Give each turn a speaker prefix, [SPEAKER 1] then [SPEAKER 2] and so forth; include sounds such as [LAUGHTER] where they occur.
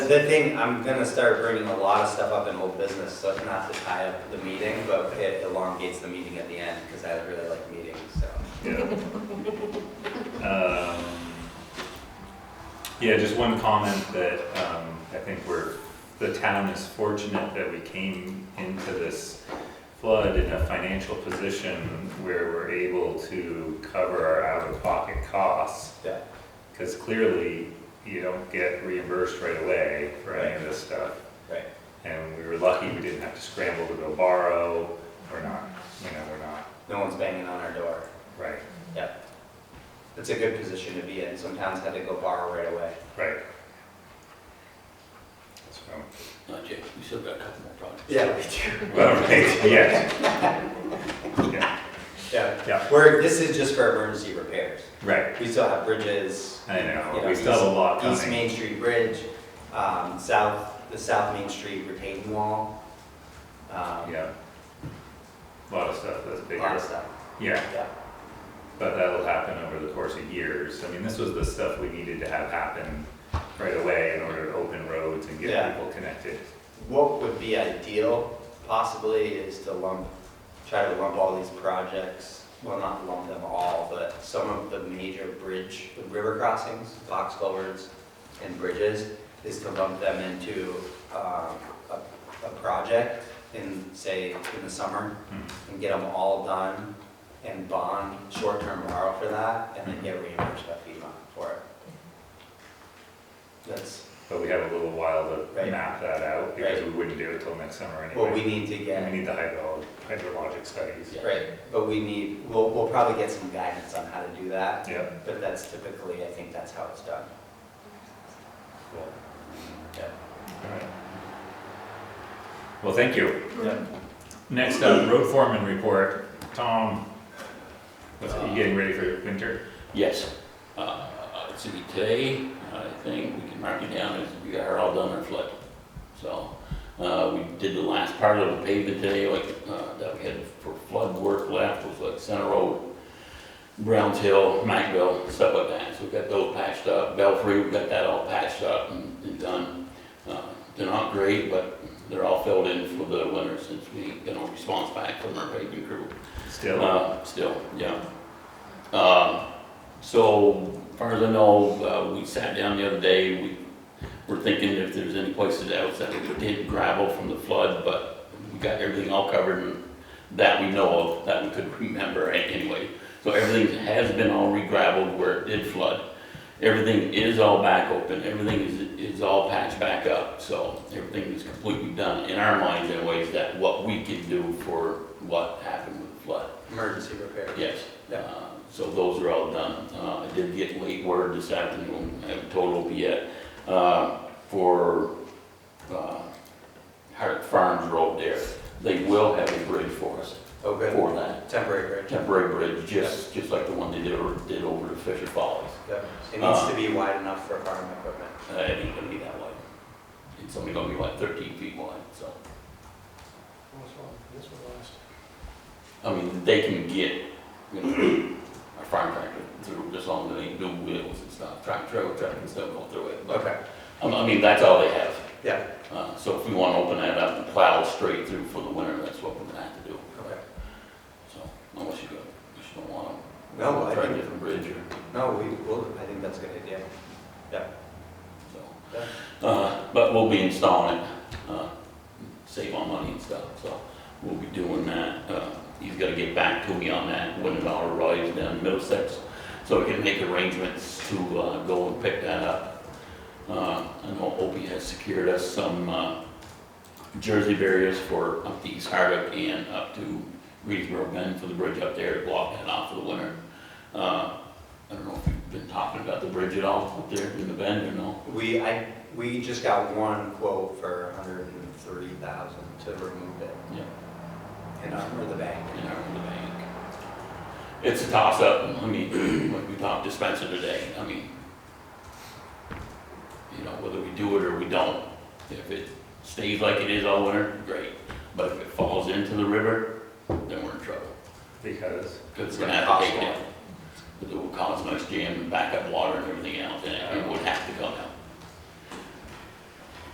[SPEAKER 1] the thing, I'm gonna start bringing a lot of stuff up in old business, so not to tie up the meeting, but it elongates the meeting at the end, because I really like meetings, so.
[SPEAKER 2] Yeah. Um, Yeah, just one comment that um, I think we're, the town is fortunate that we came into this flood in a financial position where we're able to cover our out-of-pocket costs.
[SPEAKER 1] Yeah.
[SPEAKER 2] Because clearly, you don't get reimbursed right away for any of this stuff.
[SPEAKER 1] Right.
[SPEAKER 2] And we were lucky we didn't have to scramble to go borrow. We're not, you know, we're not,
[SPEAKER 1] No one's banging on our door.
[SPEAKER 2] right,
[SPEAKER 1] It's a good position to be in. Some towns had to go borrow right away.
[SPEAKER 2] right. So.
[SPEAKER 3] Not yet, Uh, we still got a couple more projects.
[SPEAKER 1] [LAUGHS] Yeah, we do.
[SPEAKER 2] Well, right, yes. Yeah,
[SPEAKER 1] Yeah.
[SPEAKER 2] Yeah.
[SPEAKER 1] Where, this is just for emergency repairs.
[SPEAKER 2] Right,
[SPEAKER 1] We still have bridges.
[SPEAKER 2] I know,
[SPEAKER 1] you
[SPEAKER 2] we still have a lot
[SPEAKER 1] East- East
[SPEAKER 2] coming.
[SPEAKER 1] Main Street Bridge, um, south, the South Main Street retaining wall. Um,
[SPEAKER 2] Yeah. a Lot of stuff that's
[SPEAKER 1] A lot
[SPEAKER 2] bigger,
[SPEAKER 1] of stuff,
[SPEAKER 2] yeah,
[SPEAKER 1] yeah.
[SPEAKER 2] but that'll happen over the course of years. I mean, this was the stuff we needed to have happen right away in order to open roads and
[SPEAKER 1] Yeah.
[SPEAKER 2] get people connected.
[SPEAKER 1] What would be ideal possibly is to lump, try to lump all these projects, well, not lump them all, but some of the major bridge, river crossings, box culverts, and bridges, is to lump them into um, a, a project in, say, in the summer,
[SPEAKER 2] Hmm.
[SPEAKER 1] and get them all done, and bond short-term borrow for that, and then get reimbursed by FEMA for it. That's
[SPEAKER 2] But we have a little while to
[SPEAKER 1] Right.
[SPEAKER 2] map that out because
[SPEAKER 1] Right.
[SPEAKER 2] we wouldn't do it till next summer anyway.
[SPEAKER 1] what we need to get.
[SPEAKER 2] We need the hydro, hydrologic studies.
[SPEAKER 1] Right, but we need, we'll, we'll probably get some guidance on how to do that,
[SPEAKER 2] Yeah,
[SPEAKER 1] but that's typically, I think that's how it's done.
[SPEAKER 2] cool.
[SPEAKER 1] Yeah.
[SPEAKER 2] Alright. Well, thank you.
[SPEAKER 1] Yeah.
[SPEAKER 2] Next up, road foreman report. Tom, what's, are you getting ready for winter?
[SPEAKER 3] Yes, uh, it's gonna be today, I think, we can mark it down, as we are all done our flood. So, uh, we did the last part of the pavement today, like, uh, that we had for flood work left, was like Center Road, Browns Hill, Mackville, stuff like that, so we got those patched up, Belfry, we got that all patched up and and done. Uh, They're not great, but they're all filled in for the winter since we got no response back from our paving crew.
[SPEAKER 2] Still,
[SPEAKER 3] Uh, Still, yeah. Um, So, as far as I know, uh, we sat down the other day, we were thinking if there's any places else that we did gravel from the flood, but we got everything all covered and that we know of, that we could remember a- anyway. So everything has been all re-gravelled where it did flood. Everything is all back open, everything is, is all patched back up, so everything is completely done in our minds in ways that what we can do for what happened with the flood.
[SPEAKER 1] Emergency repair.
[SPEAKER 3] Yes,
[SPEAKER 1] Yeah.
[SPEAKER 3] Uh, so those are all done. Uh, I did get late word this afternoon, I haven't told Opie yet, uh, for uh, Hart Farms Road there. They will have a bridge for us,
[SPEAKER 1] Oh, good,
[SPEAKER 3] for that,
[SPEAKER 1] temporary bridge,
[SPEAKER 3] temporary bridge, just, just like the one they did over, did over to Fisher Falls.
[SPEAKER 1] yeah. It needs to be wide enough for farm equipment.
[SPEAKER 3] Uh, It ain't gonna be that wide. It's only gonna be like thirteen feet wide, so. I mean, they can get, you know, a farm tractor through, just long as they do wheels and stuff, track, trailer track and stuff go through it. But,
[SPEAKER 1] Okay,
[SPEAKER 3] I mean- I mean, that's all they have.
[SPEAKER 1] yeah,
[SPEAKER 3] Uh, so if we wanna open that up and plow straight through for the winter, that's what we're gonna have to do.
[SPEAKER 1] okay.
[SPEAKER 3] So, unless you go, you just don't wanna.
[SPEAKER 1] No, I
[SPEAKER 3] Try a
[SPEAKER 1] think-
[SPEAKER 3] different bridge or,
[SPEAKER 1] No, we will, I think that's a good idea.
[SPEAKER 3] so.
[SPEAKER 1] Yeah.
[SPEAKER 3] Uh, but we'll be installing it, uh, save on money and stuff, so we'll be doing that. Uh, he's gotta get back to me on that when it all arrives down in Middlesex, so we can make arrangements to, uh, go and pick that up. Uh, I know Opie has secured us some, uh, Jersey barriers for up to East Hardwick and up to Greensboro Bend for the bridge up there to block that off for the winter. Uh, I don't know if you've been talking about the bridge at all up there in the bend or no?
[SPEAKER 1] We, I, we just got one quote for a hundred and three thousand to remove it.
[SPEAKER 3] Yeah.
[SPEAKER 1] And under the bank.
[SPEAKER 3] in our own bank. It's a toss-up, I mean, like we talked to Spencer today, I mean, you know, whether we do it or we don't, if it stays like it is all winter, great, but if it falls into the river, then we're in trouble.
[SPEAKER 2] because,
[SPEAKER 3] Because we're gonna have to take it down. Because it will cause much jam and backup water and everything else, and it would have to come out.